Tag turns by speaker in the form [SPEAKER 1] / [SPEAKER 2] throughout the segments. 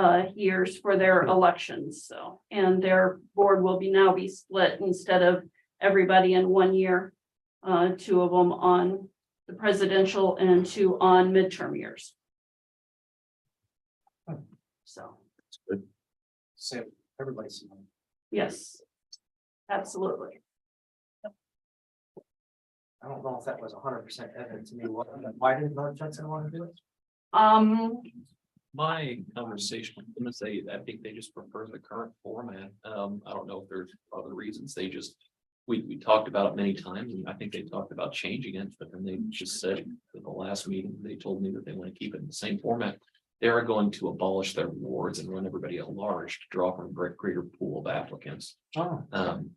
[SPEAKER 1] uh, years for their elections, so, and their board will be now be split instead of everybody in one year. Uh, two of them on the presidential and two on midterm years. So,
[SPEAKER 2] So everybody's. seen it.
[SPEAKER 1] yes. Absolutely.
[SPEAKER 2] I don't know if that was hundred percent evident to me. Why- Why did North Judson want to do it?
[SPEAKER 1] Um,
[SPEAKER 3] My conversation with them is they, I think they just prefer the current format. Um, I don't know if there's other reasons. They just. We, we talked about it many times and I think they talked about changing it, but then they just said in the last meeting, they told me that they want to keep it in the same format. They are going to abolish their wards and run everybody at large to draw from a greater pool of applicants.
[SPEAKER 2] Oh,
[SPEAKER 3] Um.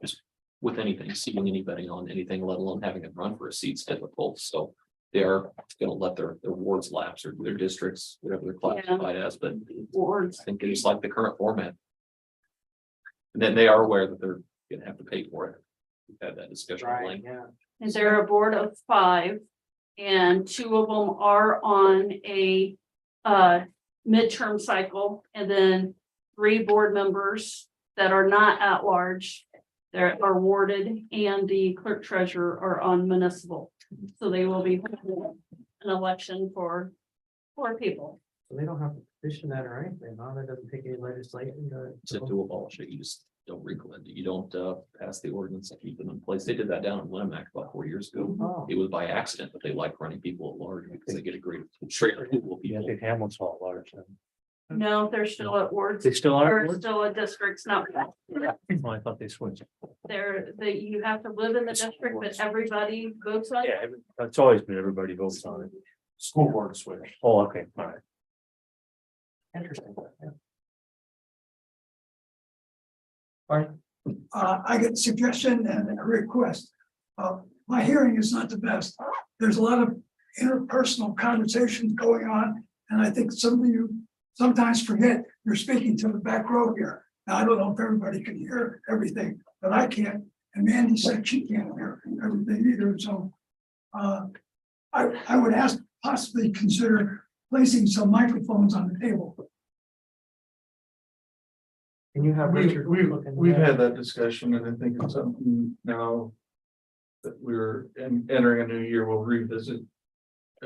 [SPEAKER 3] Just with anything, seating anybody on anything, let alone having them run for a seat's difficult, so. They are gonna let their, their wards lapse or their districts, whatever they're classified as, but
[SPEAKER 1] boards,
[SPEAKER 3] I think they just like the current format. And then they are aware that they're gonna have to pay for it. We've had that discussion. at
[SPEAKER 2] right,
[SPEAKER 3] length.
[SPEAKER 2] yeah.
[SPEAKER 1] And they're a board of five. And two of them are on a uh midterm cycle and then three board members that are not at large. They're are warded and the clerk treasurer are on municipal. So they will be holding an election for four people.
[SPEAKER 2] So they don't have to petition that or anything. Huh? That doesn't take any legislation
[SPEAKER 3] To
[SPEAKER 2] to.
[SPEAKER 3] to abolish it, you just don't recall it, you don't uh pass the ordinance and keep them in place. They did that down in Lemac about four years ago.
[SPEAKER 2] Oh,
[SPEAKER 3] It was by accident, but they like running people at large because they get a great. greater pool of
[SPEAKER 4] Yeah, I
[SPEAKER 3] people.
[SPEAKER 4] think Hamlin's all large. then.
[SPEAKER 1] No, they're still at wards.
[SPEAKER 4] They still are.
[SPEAKER 1] They're still at districts, not
[SPEAKER 4] Oh, I thought they switched.
[SPEAKER 1] they're that you have to live in the district, but everybody votes on.
[SPEAKER 4] Yeah, every- it's always been everybody votes on it.
[SPEAKER 2] School board switch.
[SPEAKER 4] Oh, okay, all right.
[SPEAKER 2] Interesting. yeah.
[SPEAKER 5] Uh, I get suggestion and a request. Uh, my hearing is not the best. There's a lot of interpersonal conversations going on. And I think some of you sometimes forget you're speaking to the back row here. Now, I don't know if everybody can hear everything, but I can't. And Mandy said she can't hear everything either, so. Uh, I, I would ask possibly consider placing some microphones on the table.
[SPEAKER 2] Can you have
[SPEAKER 6] We,
[SPEAKER 2] Richard?
[SPEAKER 6] we,
[SPEAKER 2] look into
[SPEAKER 6] we've
[SPEAKER 2] that?
[SPEAKER 6] had that discussion and I think it's something now. That we're en- entering a new year, we'll revisit.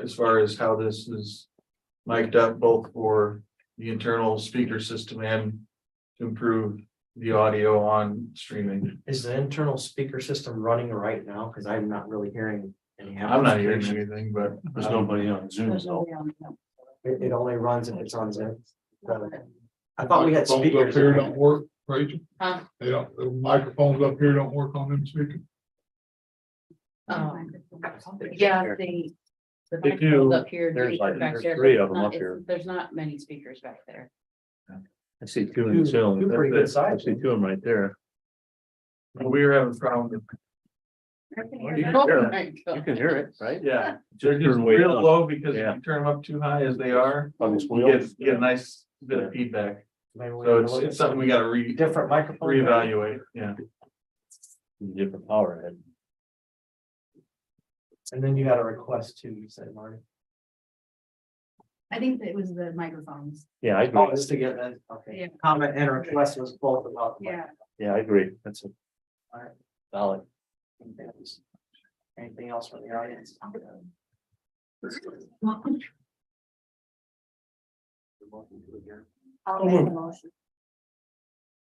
[SPEAKER 6] As far as how this is mic'd up both for the internal speaker system and. to Improve the audio on streaming.
[SPEAKER 2] Is the internal speaker system running right now? Because I'm not really hearing any.
[SPEAKER 6] I'm not hearing anything, but.
[SPEAKER 4] There's nobody on Zoom.
[SPEAKER 2] So It, it only runs if it's on Zoom. I thought we had
[SPEAKER 6] Microphones
[SPEAKER 2] speakers.
[SPEAKER 6] up here don't work, Rachel?
[SPEAKER 7] Huh?
[SPEAKER 6] They don't, the microphones up here don't work on them speakers.
[SPEAKER 7] Um, yeah, they. The
[SPEAKER 4] Oh They
[SPEAKER 7] microphones
[SPEAKER 4] do.
[SPEAKER 7] up here.
[SPEAKER 4] There's
[SPEAKER 7] these
[SPEAKER 4] like-
[SPEAKER 7] are back
[SPEAKER 4] there's
[SPEAKER 7] there,
[SPEAKER 4] three
[SPEAKER 7] but
[SPEAKER 4] of 'em
[SPEAKER 7] not-
[SPEAKER 4] up
[SPEAKER 7] it's-
[SPEAKER 4] here.
[SPEAKER 7] There's not many speakers back there.
[SPEAKER 4] I see two in Zoom.
[SPEAKER 2] Two pretty good
[SPEAKER 4] That's it. I
[SPEAKER 2] sized
[SPEAKER 4] see two of them right there.
[SPEAKER 6] We were having a problem.
[SPEAKER 4] You
[SPEAKER 7] Oh.
[SPEAKER 4] can hear it, right?
[SPEAKER 6] Yeah. They're
[SPEAKER 4] Just
[SPEAKER 6] just
[SPEAKER 4] turn way
[SPEAKER 6] real
[SPEAKER 4] down
[SPEAKER 6] low because if
[SPEAKER 4] Yeah.
[SPEAKER 6] you turn them up too high as they are,
[SPEAKER 4] on this
[SPEAKER 6] you
[SPEAKER 4] wheel.
[SPEAKER 6] get, you get a nice bit of feedback.
[SPEAKER 2] Maybe we
[SPEAKER 6] So
[SPEAKER 2] can
[SPEAKER 6] it's,
[SPEAKER 2] look at
[SPEAKER 6] it's something we gotta re,
[SPEAKER 2] Different microphone.
[SPEAKER 6] reevaluate, yeah.
[SPEAKER 4] Different power head.
[SPEAKER 2] And then you had a request too, you said, Marty.
[SPEAKER 7] I think it was the microphones.
[SPEAKER 4] Yeah, I
[SPEAKER 2] Oh,
[SPEAKER 4] agree.
[SPEAKER 2] it's to get that, okay.
[SPEAKER 7] Yeah.
[SPEAKER 2] Comment and request was both about. the mic.
[SPEAKER 4] Yeah, I agree. That's a
[SPEAKER 2] Alright.
[SPEAKER 4] valid.
[SPEAKER 2] Anything else from the audience?
[SPEAKER 7] I'll make a motion.